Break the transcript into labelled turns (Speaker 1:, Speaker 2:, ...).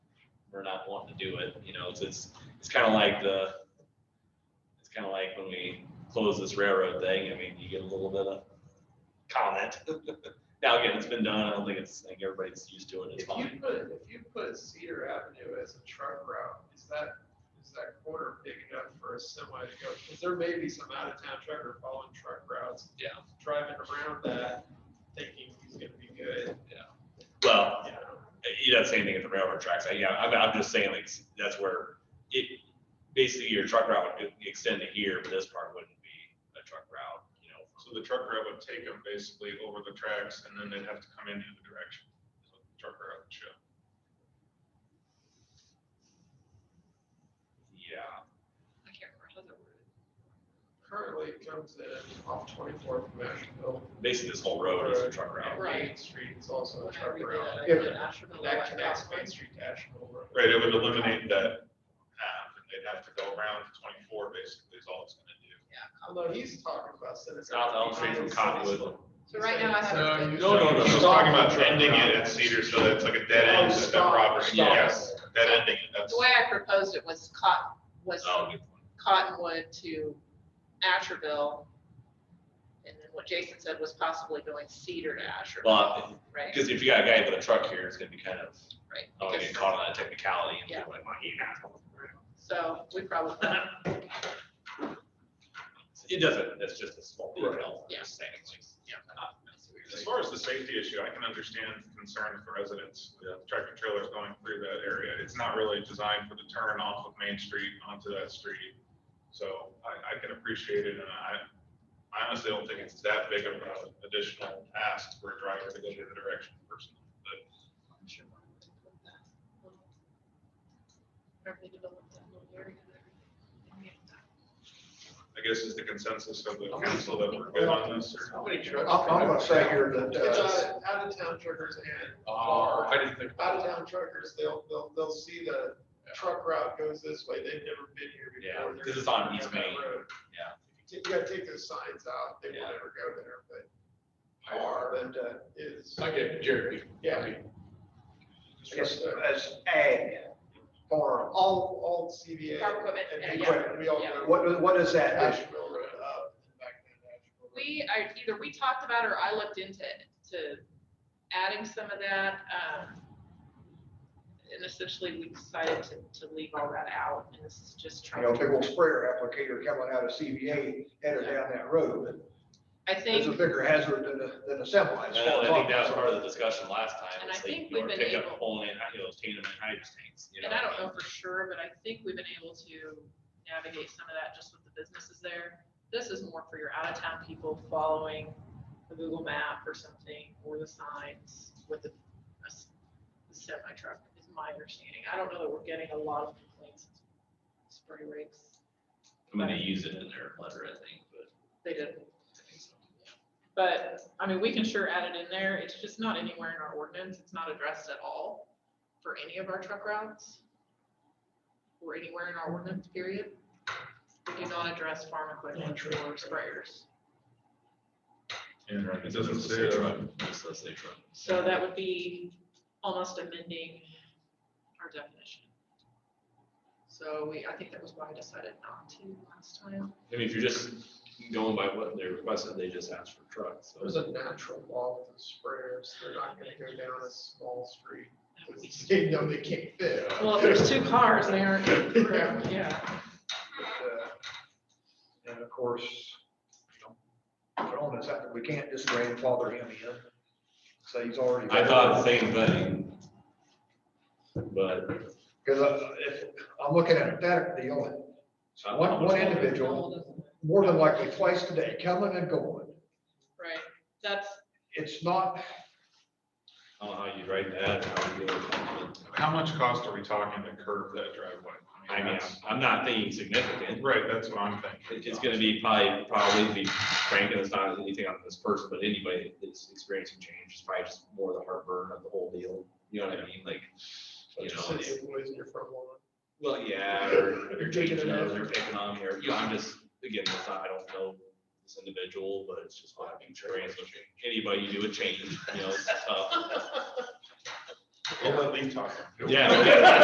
Speaker 1: we're not wanting to do it, you know, it's, it's, it's kind of like the, it's kind of like when we close this railroad thing, I mean, you get a little bit of comment. Now, again, it's been done, I don't think it's, I think everybody's used to it, it's
Speaker 2: If you
Speaker 1: fine.
Speaker 2: put, if you put Cedar Avenue as a truck route, is that, is that corner big enough for a semi to go? Because there may be some out of town trucker following truck routes.
Speaker 1: Yeah.
Speaker 2: Driving around that, thinking he's gonna be good,
Speaker 1: Well,
Speaker 2: you know?
Speaker 1: you know, same thing at the railroad tracks. I- Yeah, I'm, I'm just saying like, that's where it, basically your truck route would e, extend to here, but this part wouldn't be a truck route, you know.
Speaker 3: So the truck route would take them basically over the tracks and then they'd have to come in the other direction. So the Truck route would show.
Speaker 1: Yeah,
Speaker 4: I can't remember how that word.
Speaker 2: Currently it comes in off twenty-fourth of Nashville.
Speaker 1: basically this whole road is a truck
Speaker 2: and
Speaker 1: route.
Speaker 2: Main
Speaker 4: Right.
Speaker 2: Street is also a
Speaker 4: When I
Speaker 2: truck
Speaker 4: read
Speaker 2: route.
Speaker 4: that, I
Speaker 2: If
Speaker 4: thought Asheville,
Speaker 2: That
Speaker 4: like,
Speaker 2: connects
Speaker 4: that
Speaker 2: Main
Speaker 4: one.
Speaker 2: Street to Asheville Road.
Speaker 3: Right, it would eliminate that path and they'd have to go around to twenty-four basically is all it's gonna do.
Speaker 2: Although he's talking about. Senator-
Speaker 1: South Elm Street from Cottonwood.
Speaker 4: So right now I have.
Speaker 2: No,
Speaker 4: it
Speaker 2: you-
Speaker 4: as-
Speaker 2: No, no, no.
Speaker 3: She's talking about ending it at Cedar, so that's like a dead end at that
Speaker 2: Stop,
Speaker 3: property.
Speaker 2: stop.
Speaker 3: Yes, dead ending, that's.
Speaker 4: The way I proposed it was cotton, was
Speaker 1: Oh, good point.
Speaker 4: Cottonwood to Asheville. And then what Jason said was possibly going Cedar to Asheville,
Speaker 1: Well,
Speaker 4: right?
Speaker 1: because if you got a guy with a truck here, it's gonna be kind of,
Speaker 4: Right.
Speaker 1: I don't wanna get
Speaker 4: because-
Speaker 1: caught on that technicality and be
Speaker 4: Yeah.
Speaker 1: like, my God.
Speaker 4: So we probably,
Speaker 1: It doesn't, that's just a small detail.
Speaker 4: Yeah.
Speaker 1: Just saying, like, yeah, not-
Speaker 3: As far as the safety issue, I can understand the concern of the residents, with the tractor trailers going through that area. It's not really designed for the turn off of Main Street onto that street. So I, I can appreciate it and I, I honestly don't think it's that big of an additional task for a driver to go the other direction personally. But
Speaker 4: Remember they developed that little area there?
Speaker 3: I guess it's the consensus of the council that we're good on this or.
Speaker 2: How many trucks?
Speaker 5: I'm, I'm gonna say here that,
Speaker 2: It's
Speaker 5: uh,
Speaker 2: out, out of town truckers and.
Speaker 1: Oh, I didn't think
Speaker 2: Out of town truckers, they'll, they'll, they'll see the truck route goes this way, they've never been here
Speaker 1: Yeah,
Speaker 2: before.
Speaker 1: 'cause it's on East
Speaker 2: They're
Speaker 1: Main.
Speaker 2: road.
Speaker 1: Yeah.
Speaker 2: You gotta take those signs out, they will
Speaker 1: Yeah.
Speaker 2: never go there, but. Car, but, uh, is,
Speaker 6: I get Jerry.
Speaker 2: yeah, uh,
Speaker 5: just as ag farm,
Speaker 2: all, all CVA.
Speaker 4: Farm equipment,
Speaker 2: And
Speaker 4: and-
Speaker 2: equipment, we all.
Speaker 4: yeah.
Speaker 2: go
Speaker 5: what, what is that? It's-
Speaker 2: Asheville Road up, and back to Asheville Road.
Speaker 4: We, I, either we talked about or I looked into, to adding some of that, um. And essentially, we decided to, to leave all that out, and this is just
Speaker 5: You
Speaker 4: trying
Speaker 5: know, big
Speaker 4: to,
Speaker 5: old sprayer applicator coming out of CVA headed down that road.
Speaker 4: I
Speaker 5: It's a
Speaker 4: think,
Speaker 5: bigger hazard than a, than a semi.
Speaker 1: I know, I think that was part of the discussion last time.
Speaker 4: And
Speaker 1: It's
Speaker 4: I
Speaker 1: like,
Speaker 4: think
Speaker 1: you
Speaker 4: we've
Speaker 1: wanna
Speaker 4: been
Speaker 1: pick up
Speaker 4: able-
Speaker 1: Pulling in, you know, those tandem and hydro tanks, you know.
Speaker 4: and I don't know for sure, but I think we've been able to navigate some of that just with the businesses there. This is more for your out-of-town people following the Google map or something, or the signs with the, a s- the semi truck, is my understanding. I don't know that we're getting a lot of complaints, spray rigs.
Speaker 1: I'm gonna use it in their letter, I think, but.
Speaker 4: They did.
Speaker 1: I think so.
Speaker 4: But, I mean, we can sure add it in there. It's just not anywhere in our ordinance. It's not addressed at all for any of our truck routes. Or anywhere in our ordinance, period. We do not address farm equipment or sprayers.
Speaker 3: And it doesn't say that on
Speaker 1: Just let's say truck.
Speaker 4: So that would be almost amending our definition. So we, I think that was why I decided not to last time.
Speaker 1: I mean, if you're just going by what they requested, they just asked for trucks,
Speaker 2: There's
Speaker 1: so.
Speaker 2: a natural wall with the sprayers, they're not gonna go down a small street,
Speaker 4: That would be-
Speaker 2: they know they can't fit.
Speaker 4: Well, if there's two cars, they aren't, yeah.
Speaker 5: Uh, And of course, you know, the onus that we can't just grandfather him in. So he's already.
Speaker 1: I thought the same thing. But.
Speaker 5: Cause uh, if, I'm looking at that deal, and one, one individual, more than likely twice a day, coming and going.
Speaker 4: Right, that's,
Speaker 5: It's not
Speaker 1: I don't know how you write that, how you do it, but,
Speaker 3: How much cost are we talking to curb that driveway?
Speaker 1: I mean,
Speaker 3: that's-
Speaker 1: I'm not thinking significant.
Speaker 3: Right, that's what I'm thinking.
Speaker 1: It- It's gonna be probably, probably be frank, and it's not anything on this person, but anybody that's experiencing change is probably just more the heartburn of the whole deal. You know what I mean? Like,
Speaker 2: Bunch
Speaker 1: you
Speaker 2: of
Speaker 1: know,
Speaker 2: sensitive boys in your front lawn.
Speaker 1: well, yeah, or if
Speaker 2: You're
Speaker 1: you're
Speaker 2: taking
Speaker 1: taking
Speaker 2: it
Speaker 1: it
Speaker 2: out.
Speaker 1: or you're taking on here, you know, I'm just, again, it's not, I don't know this individual, but it's just what I've experienced. with Anybody you do a change, you know, it's tough.
Speaker 3: We'll let Lee talk.
Speaker 1: Yeah, okay.